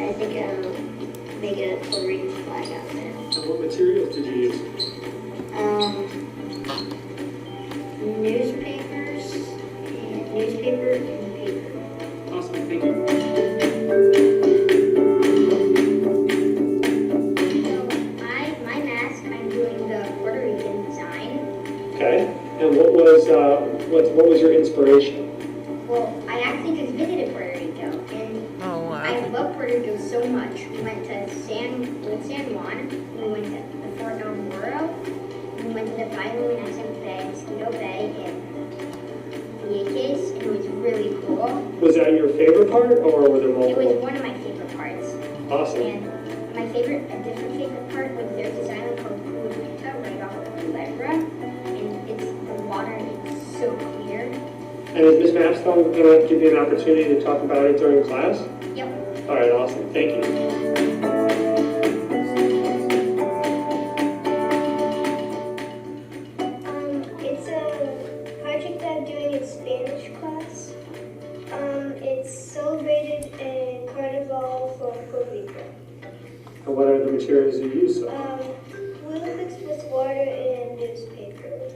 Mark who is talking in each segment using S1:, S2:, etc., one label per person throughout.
S1: I think um, they get a Puerto Rican flag out of it.
S2: And what materials did you use?
S1: Um, newspapers, and newspaper and paper.
S2: Awesome, thank you.
S1: So my my mask, I'm doing the Puerto Rican design.
S2: Okay, and what was, uh, what, what was your inspiration?
S1: Well, I actually just visited Puerto Rico and
S3: Oh,
S1: I
S3: wow.
S1: love Puerto Rico so much. We went to San, we went to San Juan, we went to the Fort El Moro, we went to the Five Luminescent Bay, Mosquito Bay, and Vieques, and it was really cool.
S2: Was that your favorite part, or were there
S1: It was
S2: multiple?
S1: one of my favorite parts.
S2: Awesome,
S1: And my favorite, a different favorite part was there's this island called Culuita right off of Culebra, and it's, the water is so clear.
S2: and is Ms. Mapstone gonna give you an opportunity to talk about it during class?
S1: Yep.
S2: All right, awesome, thank you.
S4: Um, it's a project that I'm doing in Spanish class. Um, it's celebrated in Carnival from Puerto Rico.
S2: And what are the materials you used? So,
S4: Um, Olympics with water and newspaper.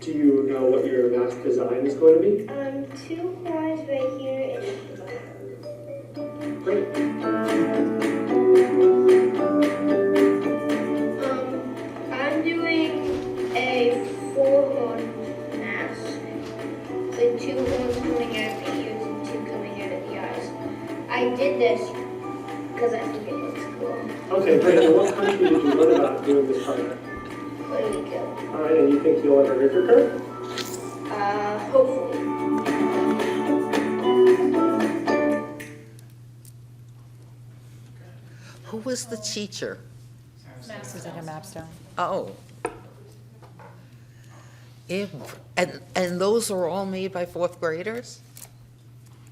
S2: do you know what your mask design is going to be?
S4: Um, two horns right here and
S2: Great.
S5: Um, I'm doing a four-horn mask. The two horns coming out of the ears and two coming out of the eyes. I did this because I think it looks cool.
S2: Okay, great, and what country did you learn about doing this project?
S5: Puerto Rico.
S2: All right, and you think you'll ever get your card?
S5: Uh, hopefully.
S3: Who was the teacher?
S6: Susanna Mapstone.
S3: Oh. It, and, and those were all made by fourth graders?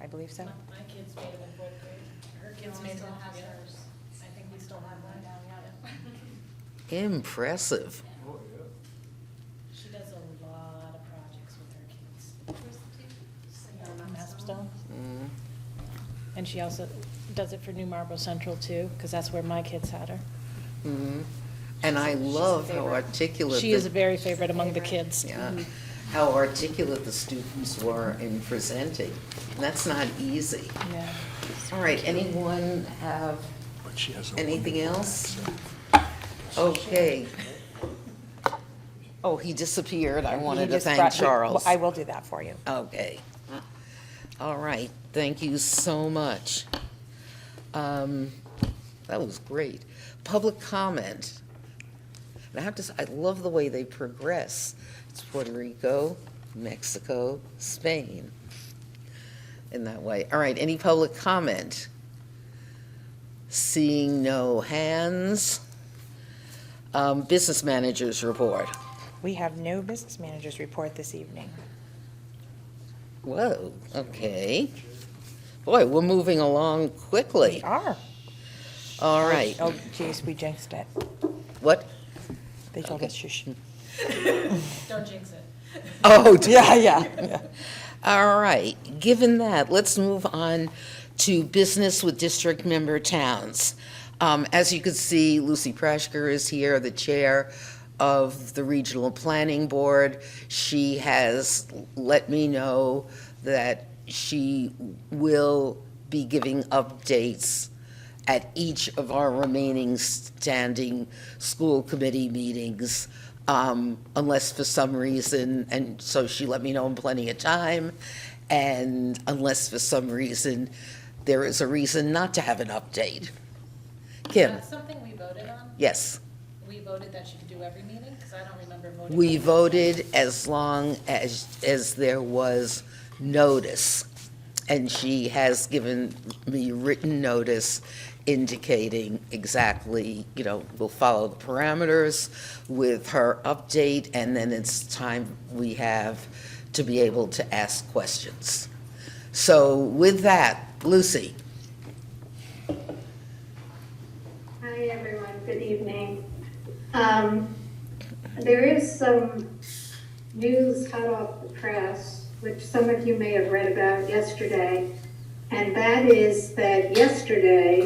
S6: I believe so.
S7: My kids made it in fourth grade. Her kids made it. Still has hers. I think we still have one down the other.
S3: Impressive.
S7: She does a lot of projects with her kids.
S8: Mapstone. And she also does it for New Marlboro Central too, because that's where my kids had her.
S3: Mhm. And I love how articulate.
S8: She is
S3: the-
S8: a very favorite among the kids.
S3: Yeah, how articulate the students were in presenting. That's not easy.
S8: Yeah.
S3: All right, anyone have
S9: But she has a
S3: anything
S9: wonderful
S3: else?
S9: accent.
S3: Okay. Oh, he disappeared. I wanted
S6: He
S3: to
S6: just brought-
S3: thank
S6: we-
S3: Charles.
S6: I will do that for you.
S3: Okay. All right, thank you so much. Um, That was great. Public comment. And I have to, s- I love the way they progress. It's Puerto Rico, Mexico, Spain, in that way. All right, any public comment? Seeing no hands. Um, Business managers report.
S6: We have no business managers report this evening.
S3: Whoa, okay. Boy, we're moving along
S6: We
S3: quickly.
S6: are.
S3: All right,
S6: Oh, jeez, we jinxed it.
S3: what?
S6: They told
S3: Okay.
S6: us shush.
S7: Don't jinx it.
S3: Oh, d-
S6: Yeah, yeah.
S3: all right. Given that, let's move on to business with district member towns. Um, As you can see, Lucy Prashker is here, the chair of the Regional Planning Board. She has let me know that she will be giving updates at each of our remaining standing school committee meetings, um, unless for some reason, and so she let me know in plenty of time, and unless for some reason, there is a reason not to have an update. Kim,
S7: That's something we voted on.
S3: yes,
S7: We voted that she could do every meeting, because I don't remember voting.
S3: we voted as long as, as there was notice, and she has given me written notice indicating exactly, you know, we'll follow the parameters with her update, and then it's time we have to be able to ask questions. So with that, Lucy,
S5: Hi, everyone. Good evening. Um, there is some news hot off the press, which some of you may have read about yesterday, and that is that yesterday,